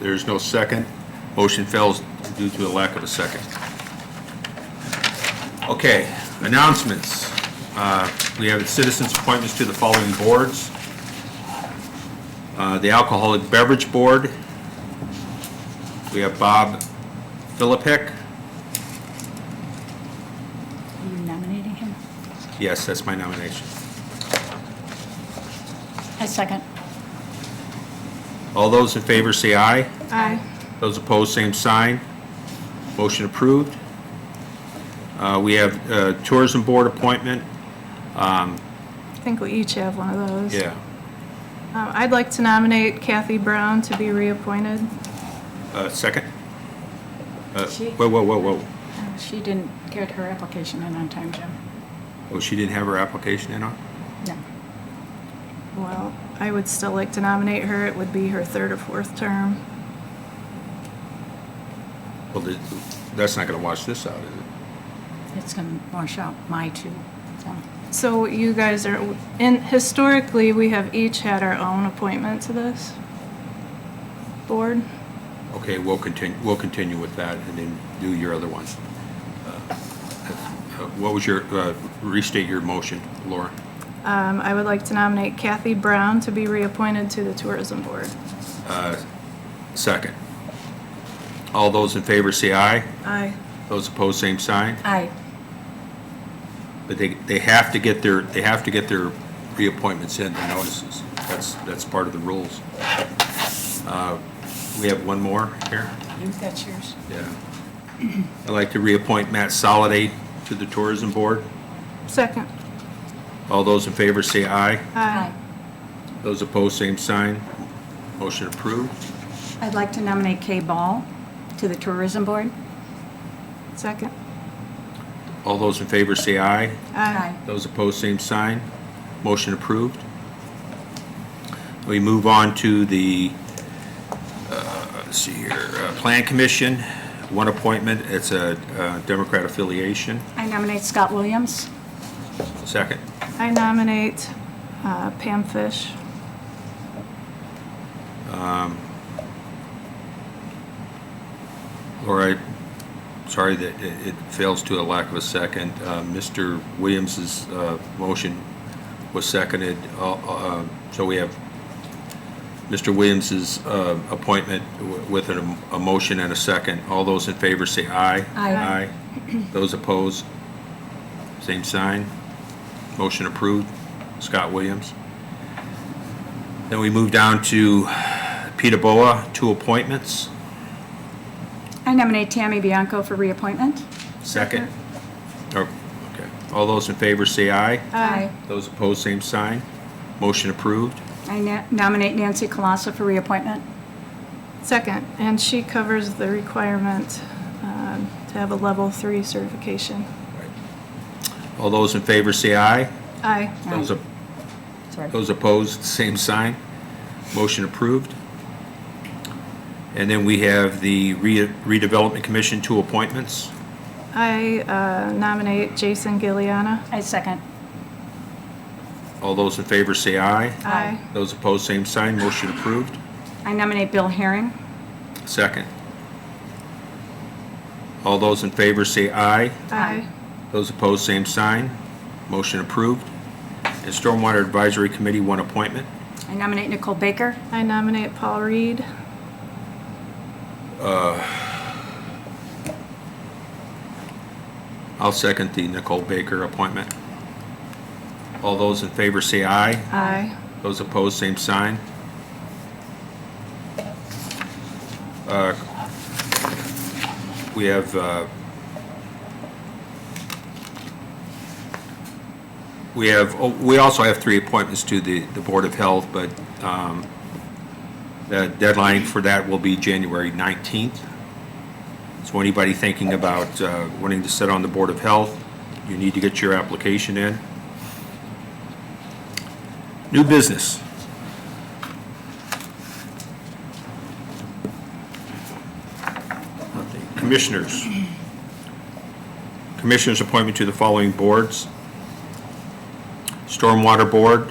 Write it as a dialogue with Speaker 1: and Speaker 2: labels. Speaker 1: There's no second. Motion fails due to a lack of a second. Okay, announcements. Uh, We have citizens' appointments to the following boards. Uh, The Alcoholic Beverage Board. We have Bob Philippek.
Speaker 2: Are you nominating him?
Speaker 1: Yes, that's my nomination.
Speaker 2: I second.
Speaker 1: All those in favor say aye.
Speaker 2: Aye.
Speaker 1: Those opposed, same sign. Motion approved. Uh, We have uh, Tourism Board appointment.
Speaker 3: I think we each have one of those.
Speaker 1: Yeah.
Speaker 3: Um, I'd like to nominate Kathy Brown to be reappointed.
Speaker 1: Uh, Second? Uh,
Speaker 2: She-
Speaker 1: Whoa, whoa, whoa, whoa.
Speaker 2: Uh, She didn't get her application in on time, Jim.
Speaker 1: Oh, she didn't have her application in on?
Speaker 2: No.
Speaker 3: Well, I would still like to nominate her. It would be her third or fourth term.
Speaker 1: Well, th- that's not going to wash this out, is it?
Speaker 2: It's going to wash out my two. so.
Speaker 3: So you guys are, and historically, we have each had our own appointment to this board.
Speaker 1: Okay, we'll continue, we'll continue with that and then do your other ones. Uh, uh, What was your, uh, restate your motion, Laura?
Speaker 3: Um, I would like to nominate Kathy Brown to be reappointed to the tourism board.
Speaker 1: Second. All those in favor say aye.
Speaker 3: Aye.
Speaker 1: Those opposed, same sign.
Speaker 2: Aye.
Speaker 1: But they, they have to get their, they have to get their reappointments in, the notices. That's, that's part of the rules. Uh, We have one more here.
Speaker 2: You, that's yours.
Speaker 1: Yeah. I'd like to reappoint Matt Soliday to the Tourism Board.
Speaker 3: Second.
Speaker 1: All those in favor say aye.
Speaker 2: Uh,
Speaker 3: Aye.
Speaker 1: Those opposed, same sign. Motion approved.
Speaker 2: I'd like to nominate Kay Ball to the Tourism Board.
Speaker 3: Second.
Speaker 1: All those in favor say aye.
Speaker 2: Uh,
Speaker 3: Aye.
Speaker 1: Those opposed, same sign. Motion approved. We move on to the, uh, let's see here, uh, Plan Commission, one appointment. It's a uh, Democrat affiliation.
Speaker 2: I nominate Scott Williams.
Speaker 1: Second.
Speaker 3: I nominate uh, Pam Fish.
Speaker 1: Laura, sorry that it it fails to a lack of a second. Uh, Mr. Williams's uh, motion was seconded, Uh, uh, so we have Mr. Williams's uh, appointment w- with an- a motion and a second. All those in favor say aye.
Speaker 2: Aye.
Speaker 1: Aye. Those opposed, same sign. Motion approved. Scott Williams. Then we move down to Peter Boa, two appointments.
Speaker 2: I nominate Tammy Bianco for reappointment.
Speaker 1: Second. Oh, Okay. All those in favor say aye.
Speaker 2: Aye.
Speaker 1: Those opposed, same sign. Motion approved.
Speaker 2: I na- nominate Nancy Colossa for reappointment.
Speaker 3: Second, and she covers the requirement um, to have a level three certification.
Speaker 1: All those in favor say aye.
Speaker 3: Aye.
Speaker 1: Those op-
Speaker 2: Sorry.
Speaker 1: Those opposed, same sign. Motion approved. And then we have the re- redevelopment commission, two appointments.
Speaker 3: I uh, nominate Jason Gilliana.
Speaker 2: I second.
Speaker 1: All those in favor say aye.
Speaker 3: Aye.
Speaker 1: Those opposed, same sign. Motion approved.
Speaker 2: I nominate Bill Herring.
Speaker 1: Second. All those in favor say aye.
Speaker 3: Aye.
Speaker 1: Those opposed, same sign. Motion approved. And Stormwater Advisory Committee, one appointment.
Speaker 2: I nominate Nicole Baker.
Speaker 3: I nominate Paul Reed.
Speaker 1: I'll second the Nicole Baker appointment. All those in favor say aye.
Speaker 3: Aye.
Speaker 1: Those opposed, same sign. Uh, We have, uh, we have, oh, we also have three appointments to the, the Board of Health, but um, the deadline for that will be January 19th. So anybody thinking about uh, wanting to sit on the Board of Health, you need to get your application in. New business. Commissioners. Commissioners' appointment to the following boards. Stormwater Board,